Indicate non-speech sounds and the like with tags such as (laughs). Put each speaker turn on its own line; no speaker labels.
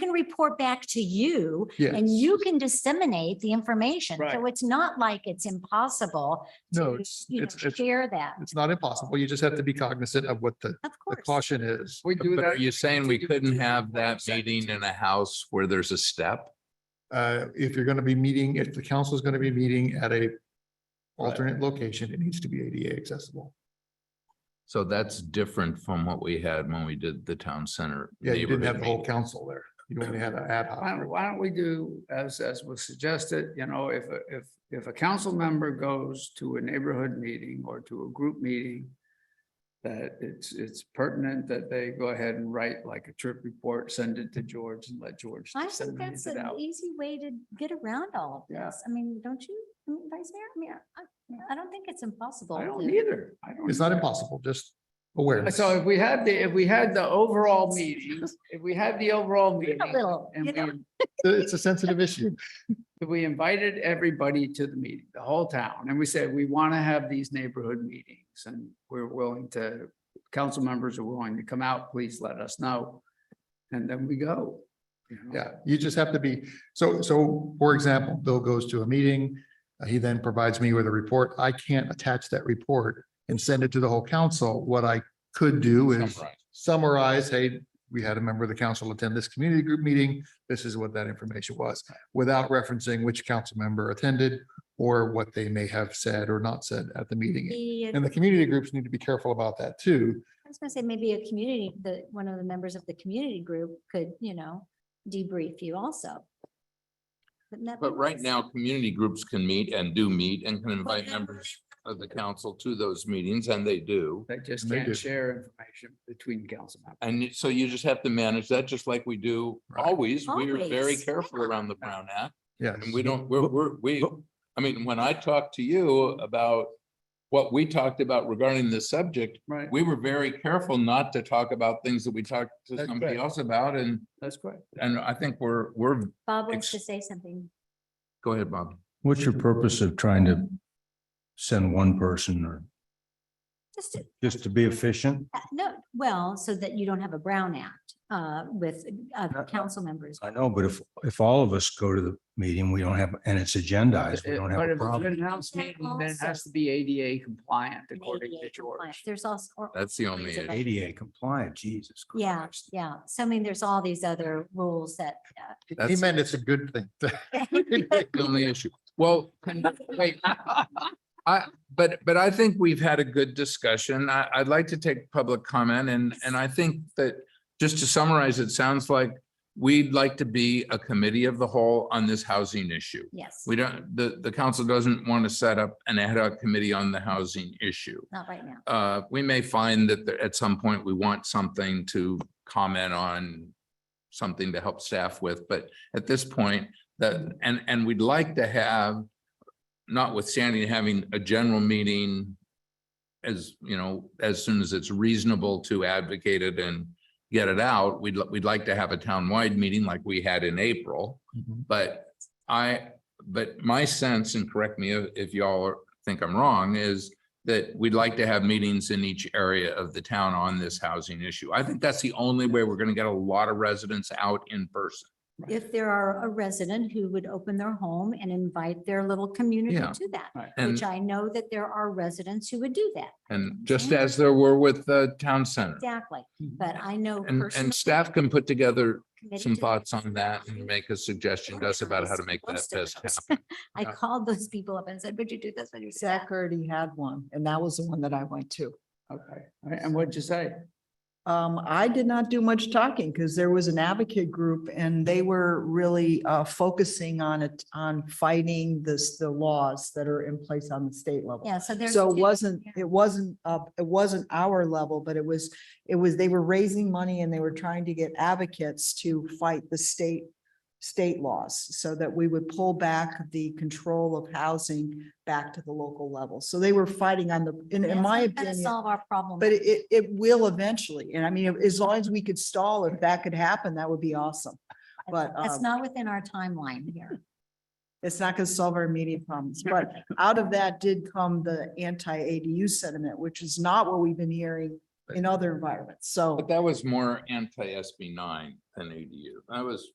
report back to you and
Yes.
you can disseminate the information. So
Right.
it's not like it's impossible.
No,
to,
it's,
you know,
it's, it's,
Share that,
it's not impossible. You just have to be cognizant of what the,
of
the
course.
caution is.
We do
But,
that.
Are you saying we couldn't have that meeting in a house where there's a step?
Uh, if you're going to be meeting, if the council is going to be meeting at a alternate location, it needs to be ADA accessible.
So that's different from what we had when we did the town center.
Yeah, you didn't have
neighborhood
the whole
meeting.
council there. You only had an ad hoc.
Why don't, why don't we do as, as was suggested, you know, if, a- if, if a council member goes to a neighborhood meeting or to a group meeting. That it's, it's pertinent that they go ahead and write like a trip report, send it to George and let George.
I think
disseminate
that's
it
an
out.
easy way to get around all of
Yeah.
this. I mean, don't you, I mean, Vice Mayor? I mean, I, I don't think it's impossible.
I don't
to-
either. I don't.
It's not
either.
impossible, just awareness.
So if we had the, if we had the overall meeting, if we had the overall
Be
meeting.
A little,
And
you know,
we
It's a sensitive issue.
we invited everybody to the meeting, the whole town, and we said, we want to have these neighborhood meetings and we're willing to, council members are willing to come out, please let us know. And then we go. you know?
Yeah, you just have to be, so, so, for example, Bill goes to a meeting. uh, He then provides me with a report. I can't attach that report and send it to the whole council. What I could do is
Summarize.
summarize, hey, we had a member of the council attend this community group meeting. This is what that information was, without referencing which council member attended or what they may have said or not said at the meeting.
be a-
And the community groups need to be careful about that too.
I was gonna say, maybe a community, the, one of the members of the community group could, you know, debrief you also. Wouldn't that be
But right
nice?
now, community groups can meet and do meet and can invite
then-
members of the council to those meetings and they do.
They just
They do.
can't share information between council members.
And so you just have to manage that just like we do
Right.
always. We are very
Always,
careful around the Brown Act.
Yes.
And we don't, we're, we're, we, I mean, when I talked to you about what we talked about regarding this subject,
Right,
we were very careful not to talk about things that we talked to
That's
somebody
correct.
else about and,
that's correct.
and I think we're, we're,
Bob wants to
ex-
say something.
go ahead, Bob.
What's your purpose of trying to send one person or
Just, to-
just to be efficient?
uh, no, well, so that you don't have a Brown Act uh, with uh,
No, no.
council members.
I know, but if, if all of us go to the meeting, we don't have, and it's agendized, we don't
But
have a
if it's
problem.
an house meeting, then it
Also-
has to be ADA compliant
and
according
ADA
to
compliant.
George.
There's also, or-
That's the only
It's a
issue.
ADA compliant, Jesus
yeah,
Christ.
yeah. So I mean, there's all these other rules that. uh,
He
That's-
meant it's a good thing. (laughs) Mhm.
The Only issue. Well, can- (laughs)
(laughs)
wait, I, but, but I think we've had a good discussion. I, I'd like to take public comment and, and I think that just to summarize, it sounds like we'd like to be a committee of the whole on this housing issue.
Yes,
We don't, the, the council doesn't want to set up an ad hoc committee on the housing issue.
not right now.
Uh, we may find that there- at some point we want something to comment on, something to help staff with, but at this point, that, and, and we'd like to have, notwithstanding having a general meeting as, you know, as soon as it's reasonable to advocate it and get it out, we'd, li- we'd like to have a townwide meeting like we had in April.
Mhm.
But I, but my sense, and correct me if if y'all are- think I'm wrong, is that we'd like to have meetings in each area of the town on this housing issue. I think that's the only way we're gonna get a lot of residents out in person.
If there are a resident who would open their home and invite their little community
Yeah.
to that.
And,
Which I know that there are residents who would do that,
and just as there were with the town center.
exactly, but I know.
And,
personally
and staff can put together
committed
some
to
thoughts
this.
on that and make a suggestion to us about how to make that
Most of
best
those.
happen.
(laughs) I
Yeah.
called those people up and said, would you do this? Would you do that?"
Zach already had one, and that was the one that I went to.
Okay, All right, and what'd you say?
Um, I did not do much talking because there was an advocate group and they were really uh focusing on it, on fighting this, the laws that are in place on the state level.
Yeah, so there's.
So it
two-
wasn't,
yeah.
it wasn't up, it wasn't our level, but it was, it was, they were raising money and they were trying to get advocates to fight the state, state laws so that we would pull back the control of housing back to the local level. So they were fighting on the, in,
That's
in my
not gonna
opinion.
Solve our problem.
But it, it- it will eventually. And I mean, as long as we could stall, if that could happen, that would be awesome. but,
That's
um,
not within our timeline here.
It's not going to solve our immediate problems, but out of that did come the anti-ADU sentiment, which is not what we've been hearing in other environments.
But
So
that was more anti-SB nine than ADU. That was